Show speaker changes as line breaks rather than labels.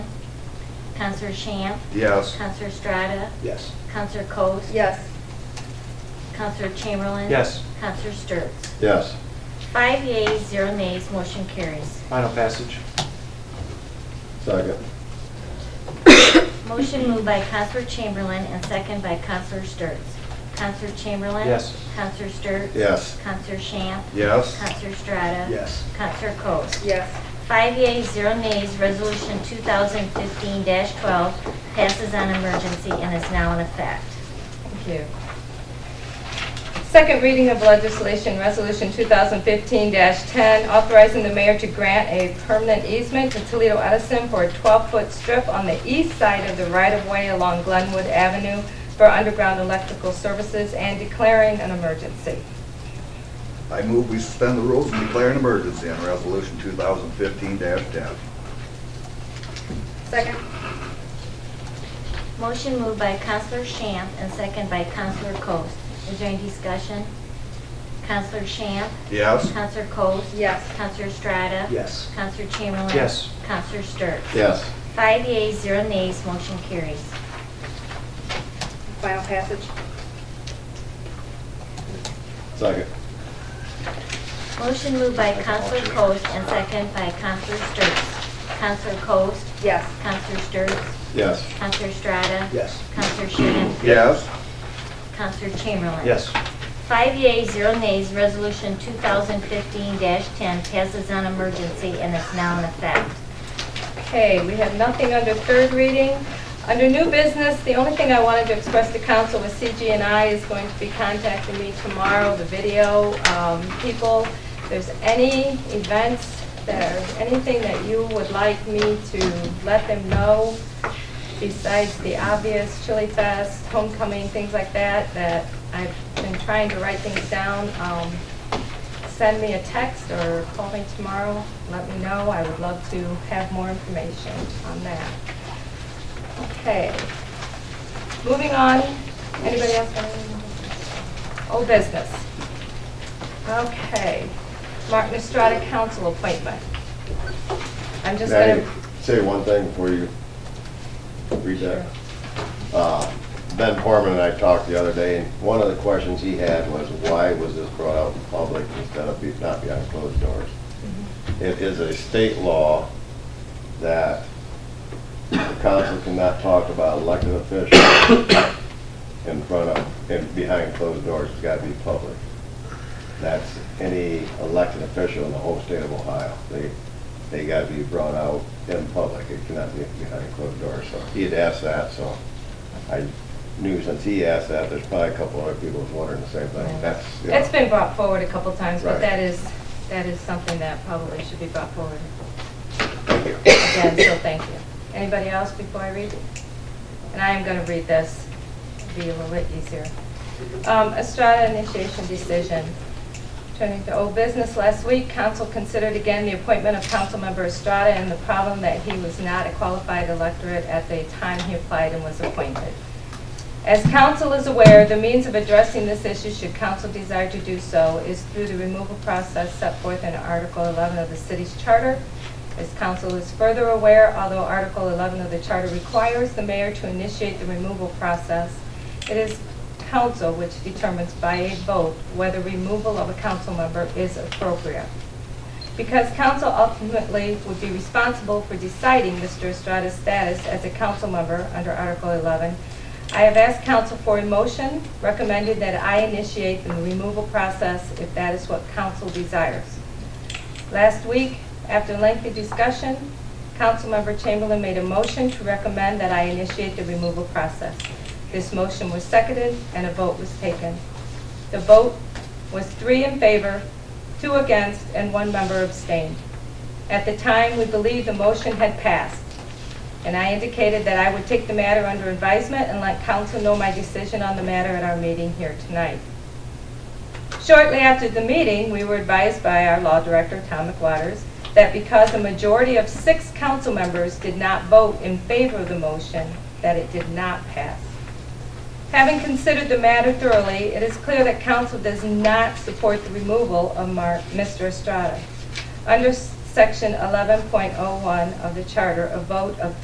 Counselor Shamp?
Yes.
Counselor Strata?
Yes.
Counselor Coats?
Yes.
Counselor Chamberlain?
Yes.
Counselor Sturts?
Yes.
Five yeas, zero nays, motion carries.
Final passage.
Second.
Motion moved by Counselor Chamberlain and second by Counselor Sturts. Counselor Chamberlain?
Yes.
Counselor Sturts?
Yes.
Counselor Shamp?
Yes.
Counselor Strata?
Yes.
Counselor Coats?
Yes.
Five yeas, zero nays, Resolution 2015-12 passes on emergency and is now in effect.
Thank you. Second reading of legislation, Resolution 2015-10, authorizing the mayor to grant a permanent easement to Toledo Edison for a 12-foot strip on the east side of the right-of-way along Glenwood Avenue for underground electrical services and declaring an emergency.
I move we suspend the rules and declare an emergency on Resolution 2015-10.
Second.
Motion moved by Counselor Shamp and second by Counselor Coast. Is there any discussion? Counselor Shamp?
Yes.
Counselor Coast?
Yes.
Counselor Strata?
Yes.
Counselor Chamberlain?
Yes.
Counselor Sturts?
Yes.
Five yeas, zero nays, motion carries.
Final passage.
Second.
Motion moved by Counselor Coast and second by Counselor Sturts. Counselor Coast?
Yes.
Counselor Sturts?
Yes.
Counselor Strata?
Yes.
Counselor Shamp?
Yes.
Counselor Chamberlain?
Yes.
Five yeas, zero nays, Resolution 2015-10 passes on emergency and is now in effect.
Okay, we have nothing under third reading. Under new business, the only thing I wanted to express to council was CG&I is going to be contacting me tomorrow, the video um, people. If there's any events, that are anything that you would like me to let them know, besides the obvious Chili Fest, homecoming, things like that, that I've been trying to write things down, um, send me a text or call me tomorrow, let me know. I would love to have more information on that. Okay. Moving on, anybody else? got any- Old business. Okay. Martin Estrada Council appointment. I'm just
May I
gonna,
Say one thing before you read that. Uh, Ben Forman and I talked the other day, and one of the questions he had was, why was this brought out in public instead of be- not behind closed doors? It is a state law that the council cannot talk about elected officials in front of, and behind closed doors, it's gotta be public. That's any elected official in the whole state of Ohio. They, they gotta be brought out in public, it cannot be behind closed doors. So he had asked that, so I knew since he asked that, there's probably a couple other people was wondering the same thing. That's, you know,
it's been brought forward a couple times, but
Right.
that is, that is something that probably should be brought forward
thank you.
again, so thank you. Anybody else before I read it? And I am going to read this, it'll be a little bit easier. Um, Estrada initiation decision. Turning to old business, last week, council considered again the appointment of Councilmember Estrada and the problem that he was not a qualified electorate at the time he applied and was appointed. As council is aware, the means of addressing this issue, should council desire to do so, is through the removal process set forth in Article 11 of the city's charter. As council is further aware, although Article 11 of the charter requires the mayor to initiate the removal process, it is council which determines by a vote whether removal of a council member is appropriate. Because council ultimately would be responsible for deciding Mr. Estrada's status as a council member under Article 11, I have asked council for a motion, recommended that I initiate the removal process if that is what council desires. Last week, after lengthy discussion, Councilmember Chamberlain made a motion to recommend that I initiate the removal process. This motion was seconded and a vote was taken. The vote was three in favor, two against, and one member abstained. At the time, we believed the motion had passed, and I indicated that I would take the matter under advisement and let council know my decision on the matter at our meeting here tonight. Shortly after the meeting, we were advised by our law director, Tom McWaters, that because a majority of six council members did not vote in favor of the motion, that it did not pass. Having considered the matter thoroughly, it is clear that council does not support the removal of Mar- Mr. oh Estrada. Under Section 11.01 of the Charter, a vote of